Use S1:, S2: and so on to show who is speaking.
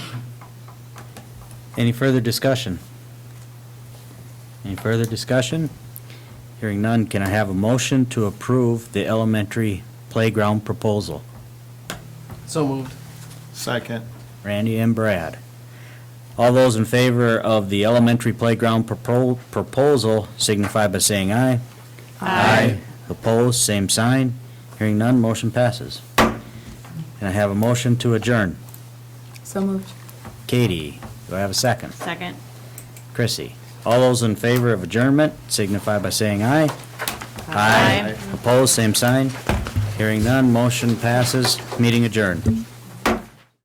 S1: Any further discussion? Any further discussion? Hearing none, can I have a motion to approve the elementary playground proposal?
S2: So moved.
S3: Second.
S1: Randy and Brad. All those in favor of the elementary playground propo- proposal signify by saying aye. Aye. Opposed, same sign. Hearing none, motion passes. Can I have a motion to adjourn?
S4: So moved.
S1: Katie, do I have a second?
S4: Second.
S1: Chrissy. All those in favor of adjournment signify by saying aye.
S4: Aye.
S1: Opposed, same sign. Hearing none, motion passes, meeting adjourned.